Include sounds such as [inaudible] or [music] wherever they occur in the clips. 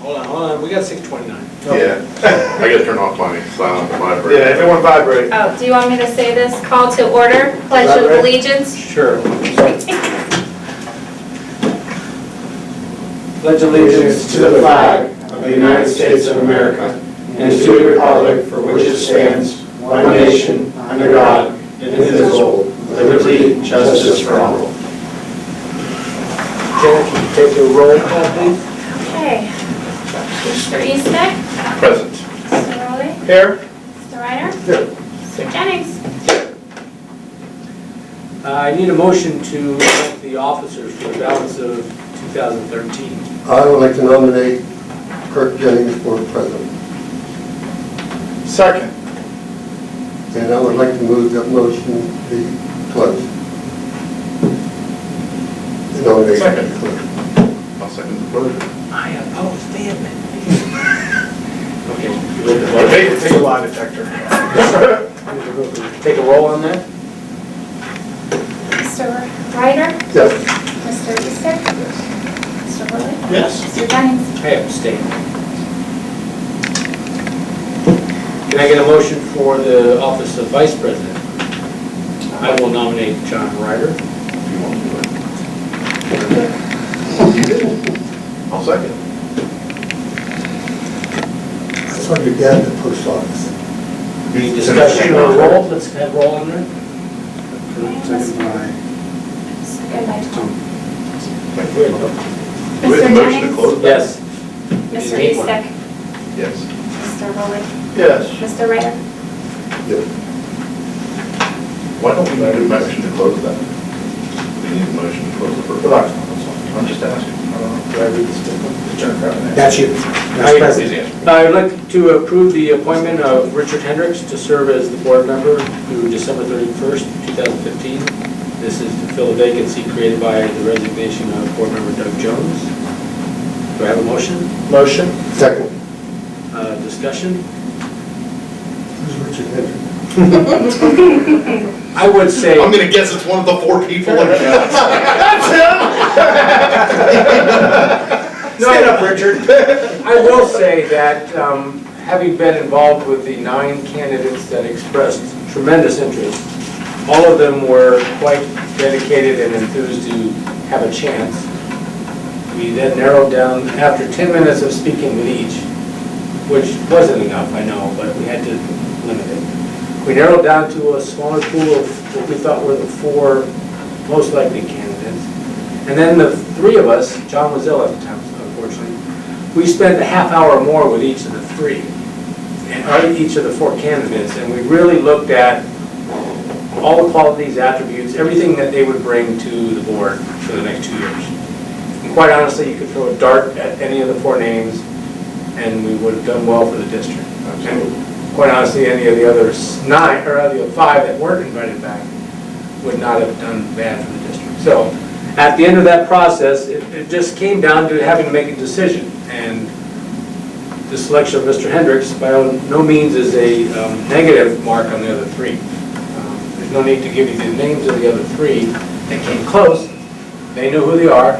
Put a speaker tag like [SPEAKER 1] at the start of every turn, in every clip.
[SPEAKER 1] Hold on, hold on, we got six twenty-nine.
[SPEAKER 2] Oh.
[SPEAKER 3] Yeah,
[SPEAKER 2] I gotta turn off my silent
[SPEAKER 3] yeah,
[SPEAKER 2] vibrator.
[SPEAKER 3] everyone vibrate.
[SPEAKER 4] Oh, do you want me to say this? Call to order, pledge of
[SPEAKER 3] Elaborate.
[SPEAKER 4] allegiance.
[SPEAKER 1] Sure. Pledge allegiance
[SPEAKER 5] to the flag of the United States of America and to the republic for which it stands, one nation, under God, indivisible, with liberty, and justice for all.
[SPEAKER 1] Janet, can you take a roll call, please?
[SPEAKER 4] Okay. Mr. Eastick?
[SPEAKER 2] Present.
[SPEAKER 4] Mr. Rowley?
[SPEAKER 3] Here?
[SPEAKER 4] Mr. Reiner?
[SPEAKER 3] Here.
[SPEAKER 4] Mr. Jennings?
[SPEAKER 1] Uh, I need a motion to elect the officers for the balance of two thousand thirteen.
[SPEAKER 6] I would like to nominate Kirk Jennings for president,
[SPEAKER 3] Second.
[SPEAKER 6] and I would like to move that motion be closed. The Nomination be closed.
[SPEAKER 2] I'll second the motion.
[SPEAKER 1] I oppose vehemently. Okay.
[SPEAKER 3] Take, take a lie
[SPEAKER 2] [laughs]
[SPEAKER 3] detector.
[SPEAKER 1] Take a roll on that?
[SPEAKER 4] Mr. Reiner?
[SPEAKER 6] Yes,
[SPEAKER 4] Mr. Eastick? Mr. Rowley?
[SPEAKER 3] Yes.
[SPEAKER 4] Mr. Jennings?
[SPEAKER 1] I abstain. Can I get a motion for the office of vice president? I will nominate John Ryder.
[SPEAKER 2] If you want to do it. I'll second.
[SPEAKER 6] I saw your dad at the post office.
[SPEAKER 1] Any discussion or roll, let's have roll on there.
[SPEAKER 4] Second by Tom.
[SPEAKER 2] Thank you. With the
[SPEAKER 4] Mr.
[SPEAKER 2] motion to
[SPEAKER 4] Jennings?
[SPEAKER 2] close?
[SPEAKER 1] Yes.
[SPEAKER 4] Mr. Eastick?
[SPEAKER 2] Yes.
[SPEAKER 4] Mr. Rowley?
[SPEAKER 3] Yes.
[SPEAKER 4] Mr. Reiner?
[SPEAKER 2] Why don't we need a motion to close that? We need a motion to close the first. I'm just
[SPEAKER 3] Did
[SPEAKER 2] asking.
[SPEAKER 3] Uh, I read this different? Turn it around.
[SPEAKER 5] That's you,
[SPEAKER 1] Aye.
[SPEAKER 5] Mr. President.
[SPEAKER 2] Easy answer.
[SPEAKER 1] I would like to approve the appointment of Richard Hendricks to serve as the board member through December 31st, 2015. This is to fill a vacancy created by the resignation of board member Doug Jones. Do I have a motion?
[SPEAKER 3] Motion?
[SPEAKER 6] Second.
[SPEAKER 1] Uh, Discussion?
[SPEAKER 6] Who's Richard Hendrick?
[SPEAKER 1] I would say,
[SPEAKER 2] I'm gonna guess it's one of the four
[SPEAKER 3] [laughs]
[SPEAKER 2] people. [laughs]
[SPEAKER 3] Stand up, Richard.
[SPEAKER 1] [laughs] I will say that, um, having been involved with the nine candidates that expressed tremendous interest, all of them were quite dedicated and enthused to have a chance. We then narrowed down, after 10 minutes of speaking with each, which wasn't enough, I know, but we had to limit it. We narrowed down to a smaller pool of what we thought were the four most likely candidates. And then the three of us, John was ill at the time, unfortunately, we spent a half hour more with each of the three, or each of the four candidates, and we really looked at all the qualities, attributes, everything that they would bring to the board for the next two years. And quite honestly, you could throw a dart at any of the four names, and we would have done well for the district. And quite honestly, any of the others nine, or any of the five that weren't invited back would not have done bad for the district. So at the end of that process, it, it just came down to having to make a decision. And the selection of Mr. Hendricks by no means is a um, negative mark on the other three. Um, There's no need to give you the names of the other three that came close. They know who they are.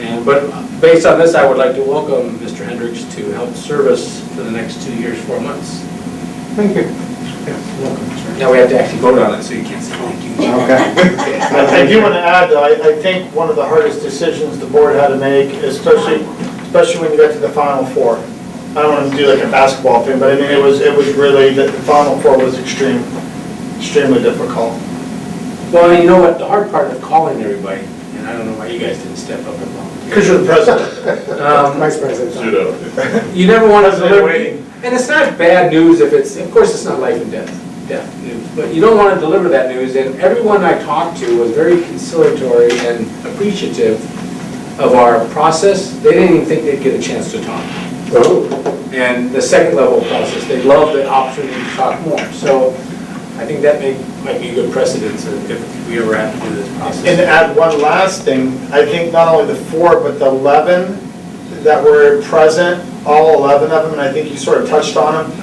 [SPEAKER 1] And, but based on this, I would like to welcome Mr. Hendricks to help service for the next two years, four months.
[SPEAKER 3] Thank you.
[SPEAKER 1] Now we have to actually vote on it, so you can't say thank you.
[SPEAKER 3] Okay.
[SPEAKER 5] I I do want to add, though, I, I think one of the hardest decisions the board had to make, especially, especially when you got to the final four. I don't want to do like a basketball thing, but I mean, it was, it was really, the the final four was extreme, extremely difficult.
[SPEAKER 1] [laughs] Well, you know what, the hard part of calling everybody, and I don't know why you guys didn't step up and volunteer.
[SPEAKER 5] Because you're the president.
[SPEAKER 1] Um,
[SPEAKER 5] President.
[SPEAKER 1] You never want to
[SPEAKER 3] President
[SPEAKER 1] deliver,
[SPEAKER 3] waiting.
[SPEAKER 1] and it's not bad news if it's, of course, it's not life and death, death news, but you don't want to deliver that news, and everyone I talked to was very conciliatory and appreciative of our process. They didn't even think they'd get a chance to talk.
[SPEAKER 6] Oh,
[SPEAKER 1] And the second level of process, they love the opportunity to talk more. So I think that may, might be a good precedence if we ever have to do this process.
[SPEAKER 5] And to add one last thing, I think not only the four, but the 11 that were present, all 11 of them, and I think you sort of touched on them.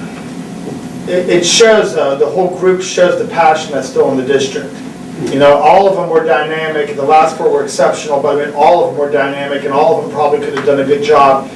[SPEAKER 5] It, it shows, uh, the whole group shows the passion that's still in the district. You know, all of them were dynamic, the last four were exceptional, but I mean, all of them were dynamic, and all of them probably could have done a good job